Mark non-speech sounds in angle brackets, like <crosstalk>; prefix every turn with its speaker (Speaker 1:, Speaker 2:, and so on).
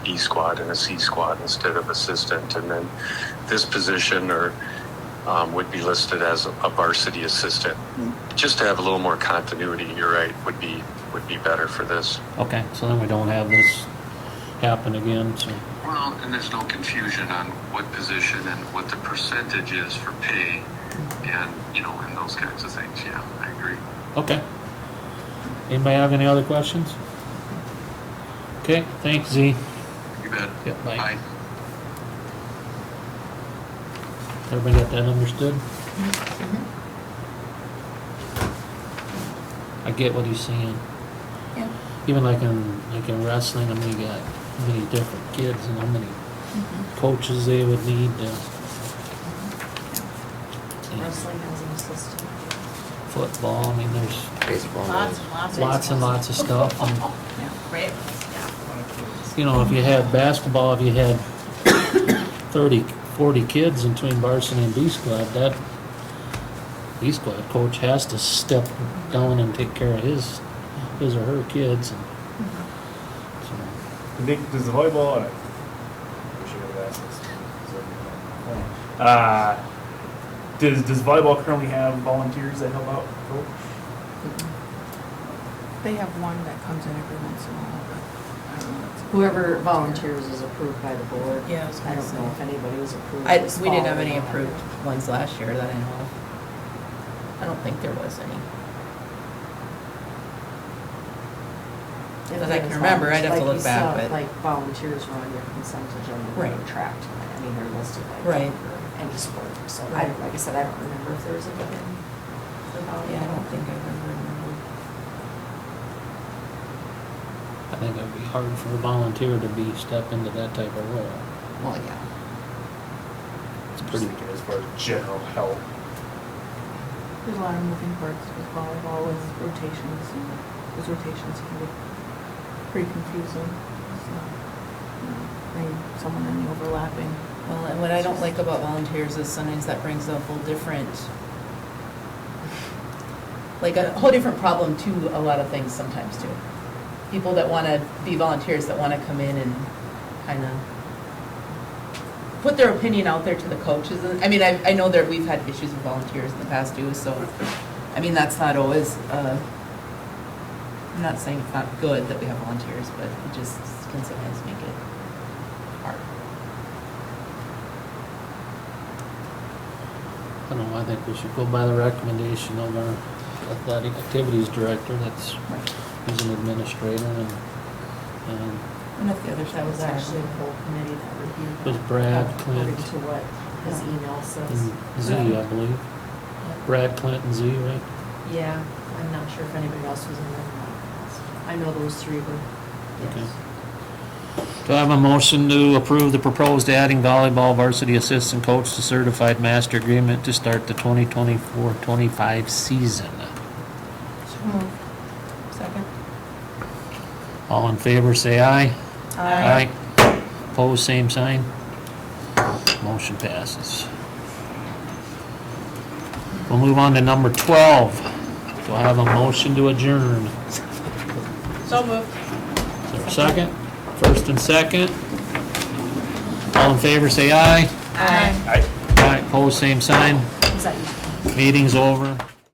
Speaker 1: E squad and a C squad instead of assistant. And then this position or um, would be listed as a varsity assistant. Just to have a little more continuity, you're right, would be, would be better for this.
Speaker 2: Okay, so then we don't have this happen again, so,
Speaker 1: Well, and there's no confusion on what position and what the percentage is for pay and, you know, and those kinds of things. Yeah, I agree.
Speaker 2: okay. Anybody have any other questions? Okay, thanks, Z.
Speaker 1: You bet.
Speaker 2: Yeah, bye. Bye. Everybody got that understood? I get what he's saying.
Speaker 3: Yeah.
Speaker 2: Even like in, like in wrestling, I mean, you got how many different kids and how many
Speaker 3: Mm-hmm.
Speaker 2: coaches they would need to. And
Speaker 3: Mm-hmm. Wrestling as an assistant.
Speaker 2: Football, I mean, there's
Speaker 3: Lots and lots. of
Speaker 2: Oh, lots and lots of
Speaker 3: <laughs>
Speaker 2: stuff. and-
Speaker 3: Yeah, Right? Yeah.
Speaker 2: you know, if you had basketball, if you had 30, 40 kids in between varsity and B squad, that B squad coach has to step down and take care of his, his or her kids. And so,
Speaker 4: The big, does the volleyball? And I, I wish I would have asked this. so it'd be on the phone. Uh, does does volleyball currently have volunteers that help out? Coach?
Speaker 5: They have one that comes in every once in a while, but I don't know. it's-
Speaker 6: Whoever volunteers is approved by the board.
Speaker 3: Yeah, I was
Speaker 6: I
Speaker 3: gonna
Speaker 6: don't
Speaker 3: say.
Speaker 6: know if anybody was approved.
Speaker 7: I,
Speaker 6: this
Speaker 7: we didn't
Speaker 6: fall
Speaker 7: have
Speaker 6: or
Speaker 7: any
Speaker 6: not.
Speaker 7: approved ones last year that I know of. I don't think there was any.
Speaker 6: If
Speaker 7: that I
Speaker 6: there
Speaker 7: can
Speaker 6: was
Speaker 7: remember, I'd have
Speaker 6: volunteers-
Speaker 7: to
Speaker 6: like
Speaker 7: look
Speaker 6: you
Speaker 7: back,
Speaker 6: saw,
Speaker 7: but-
Speaker 6: Like volunteers are on your consent agenda.
Speaker 7: Right.
Speaker 6: Tracked, I mean, they're listed like.
Speaker 7: Right.
Speaker 6: for Any sport, so I
Speaker 7: Right.
Speaker 6: don't, like I said, I don't remember if there was a given.
Speaker 7: Yeah, I don't think I ever remember.
Speaker 2: I think it would be hard for a volunteer to be, step into that type of role.
Speaker 7: Well, yeah.
Speaker 2: It's
Speaker 4: I'm just
Speaker 2: pretty,
Speaker 4: thinking as far as general help.
Speaker 5: There's a lot of moving parts with volleyball, with rotations, and those rotations can be pretty confusing. So, you know, Bring someone in the overlapping.
Speaker 7: Well, and what I don't like about volunteers is sometimes that brings up a whole different, like a whole different problem to a lot of things sometimes too. People that want to be volunteers, that want to come in and kind of put their opinion out there to the coaches. And I mean, I, I know that we've had issues with volunteers in the past too, so, I mean, that's not always, uh, I'm not saying it's not good that we have volunteers, but it just can sometimes make it hard.
Speaker 2: I don't know, I think we should go by the recommendation of our athletic activities director, that's,
Speaker 7: Right.
Speaker 2: he's an administrator and, and
Speaker 7: And if the other side
Speaker 6: That
Speaker 7: was actually,
Speaker 6: a whole committee that reviewed.
Speaker 2: It was
Speaker 6: that,
Speaker 2: Brad,
Speaker 6: According
Speaker 2: Clint. Mm-hmm.
Speaker 6: to what his email says.
Speaker 2: and Z, I believe. Brad Clinton Z, right?
Speaker 6: Yeah, I'm not sure if anybody else was in there. or not. I know those three were.
Speaker 2: Okay. Do I have a motion to approve the proposed adding volleyball varsity assistant coach to certified master agreement to start the 2024-25 season?
Speaker 7: second?
Speaker 2: All in favor, say aye. Aye. Opposed, same sign. Motion passes. We'll move on to number 12. Do I have a motion to adjourn?
Speaker 7: So moved.
Speaker 2: Is there a second? First and second. All in favor, say aye.
Speaker 7: Aye.
Speaker 2: Aye, pose same sign.
Speaker 6: Is that you?
Speaker 2: Meeting's over.